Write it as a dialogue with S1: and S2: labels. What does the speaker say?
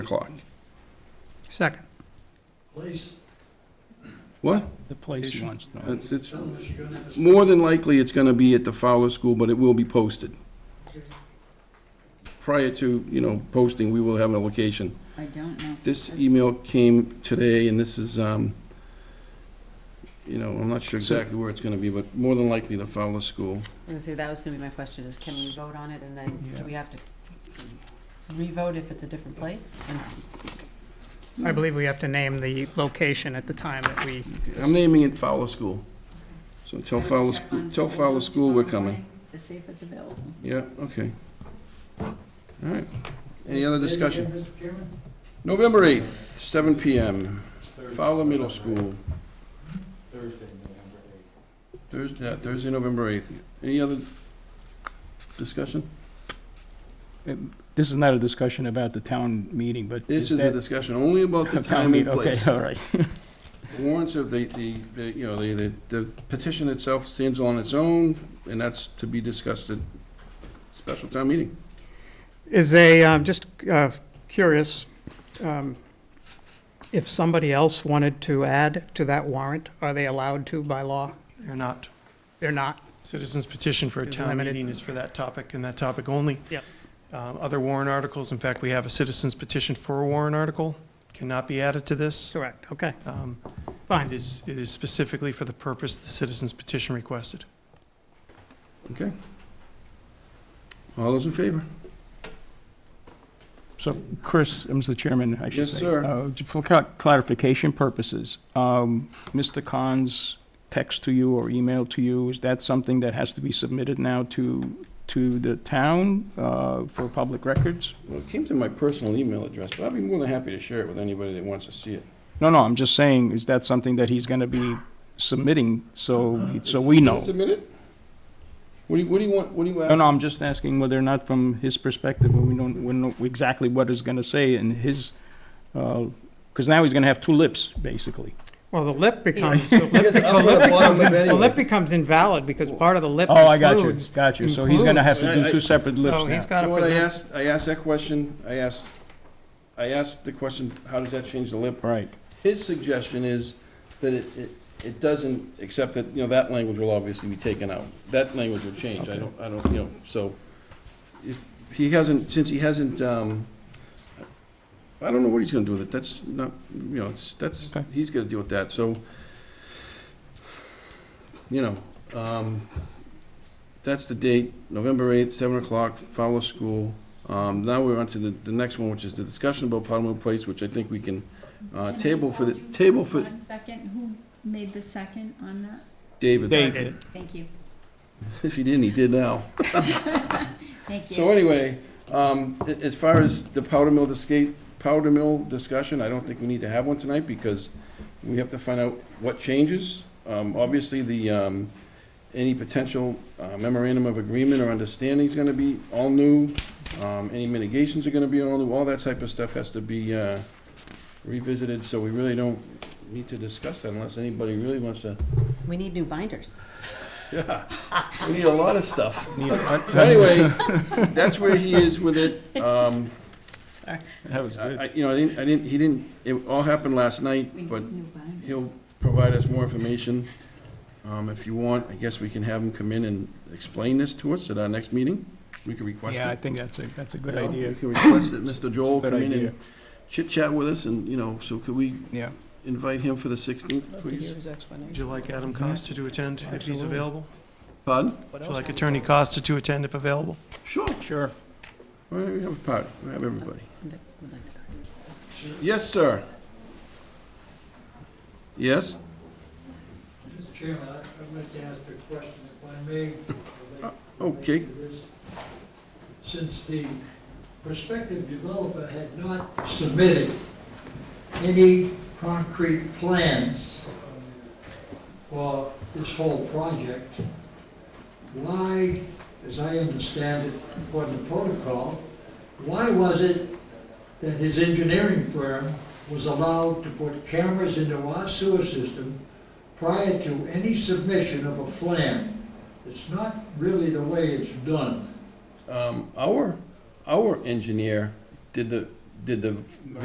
S1: o'clock.
S2: Second.
S3: Please,
S1: What?
S4: The place you want to know.
S1: It's, it's,
S3: tell them that you're gonna have a
S1: more than likely, it's gonna be at the Fowler School, but it will be posted. Prior to, you know, posting, we will have a location.
S5: I don't know.
S1: This email came today, and this is, um, you know, I'm not sure exactly where it's gonna be, but more than likely the Fowler School.
S5: I was gonna say, that was gonna be my question, is can we vote on it and then
S4: Yeah.
S5: do we have to re-vote if it's a different place? And
S2: I believe we have to name the location at the time that we,
S1: I'm naming it Fowler School. So tell Fowler,
S5: Check on
S1: Sc- tell Fowler School we're coming.
S5: To see if it's available.
S1: Yeah, okay. All right. Any other
S3: Say it
S1: discussion?
S3: again, Mr. Chairman?
S1: November 8th, seven PM, Fowler Middle School,
S3: Thursday, November eighth.
S1: Thursday, yeah, Thursday, November 8th. Any other discussion?
S4: This is not a discussion about the town meeting, but
S1: This
S4: is
S1: is a
S4: that
S1: discussion only about the time
S4: town
S1: and
S4: meeting?
S1: place.
S4: Okay, all right.
S1: Warrants of the, the, the, you know, the, the- the petition itself stands on its own, and that's to be discussed at special town meeting.
S2: is a, um, just uh, curious, um, if somebody else wanted to add to that warrant, are they allowed to by law?
S6: They're not.
S2: They're not.
S6: Citizens petition for a
S2: Is
S6: town
S2: limited.
S6: meeting is for that topic and that topic only.
S2: Yep.
S6: Um, Other warrant articles, in fact, we have a citizens petition for a warrant article, cannot be added to this.
S2: Correct, okay,
S6: Um, It
S2: fine.
S6: is, it is specifically for the purpose the citizens petition requested.
S1: All those in favor?
S4: So, Chris, I'm the chairman, I should
S1: Yes,
S4: say.
S1: sir.
S4: Uh, ju- For cla- clarification purposes, um, Mr. Khan's text to you or email to you, is that something that has to be submitted now to, to the town uh, for public records?
S1: Well, it came to my personal email address, but I'd be more than happy to share it with anybody that wants to see it.
S4: No, no, I'm just saying, is that something that he's going to be submitting, so, so we know?
S1: Submit it? What do you, what do you want, what do you ask?
S4: No, no, I'm just asking whether or not from his perspective, we don't, we know exactly what he's gonna say and his, because now he's gonna have two lips, basically.
S2: Well, the lip becomes, the
S1: I guess
S2: lip
S1: I'm gonna
S2: becomes,
S1: bottom it
S2: the lip
S1: anyway.
S2: becomes invalid because part of the lip
S4: Oh, I got you,
S2: includes.
S4: got you. So he's gonna have to do
S1: includes-
S4: two separate
S2: So he's
S4: lips now.
S2: got
S1: You
S2: to
S1: know what I
S2: present,
S1: asked, I asked that question, I asked, I asked the question, how does that change the lip?
S4: Right,
S1: His suggestion is that it, it, it doesn't, except that, you know, that language will obviously be taken out. That language will change, I don't, I don't, you know, so, if, he hasn't, since he hasn't, um, I don't know what he's gonna do with it, that's not, you know, it's, that's,
S4: Okay.
S1: he's gonna deal with that, so, you know, um, that's the date, November 8th, 7 o'clock, Fowler School. Um, Now we're on to the, the next one, which is the discussion about Pottamoot Place, which I think we can uh, table for the, table for
S7: One second, who made the second on that?
S1: David.
S4: Dave did.
S7: Thank you,
S1: If he didn't, he did now.
S7: thank you.
S1: So anyway, um, a- as far as the powder mill disca- powder mill discussion, I don't think we need to have one tonight because we have to find out what changes. Um, obviously, the, um, any potential uh, memorandum of agreement or understanding is gonna be all new. Um, any mitigations are gonna be all new, all that type of stuff has to be, uh, revisited, so we really don't need to discuss that unless anybody really wants to,
S5: We need new binders.
S1: yeah. We need a lot of stuff. So
S4: That
S1: anyway, that's where he is with it. Um,
S5: Sorry.
S4: was
S1: I,
S4: good.
S1: I- you know, I didn't, I didn't, he didn't, it all happened last
S7: We
S1: night, but
S7: need new binders.
S1: he'll provide us more information. Um, if you want, I guess we can have him come in and explain this to us at our next meeting. We can request it.
S4: Yeah, I think that's a, that's a good
S1: You know,
S4: idea.
S1: We can request that Mr. Joel
S4: Good
S1: come in
S4: idea.
S1: and chit chat with us and, you know, so could we
S4: Yeah,
S1: invite him for the sixteenth, please?
S6: Would you like Adam Costa to attend if he's available?
S1: Pardon?
S6: Would you like Attorney Costa to attend if available?
S1: Sure.
S4: sure.
S1: Why don't we have a party? We have everybody. Yes, sir. Yes?
S3: Mr. Chairman, I- I'd like to ask a question if I may. relate-
S1: Uh, okay.
S3: relate to this. Since the prospective developer had not submitted any concrete plans for this whole project, why, as I understand it, according to protocol, why was it that his engineering firm was allowed to put cameras into our sewer system prior to any submission of a plan. It's not really the way it's done.
S1: Um, our, our engineer did the, did the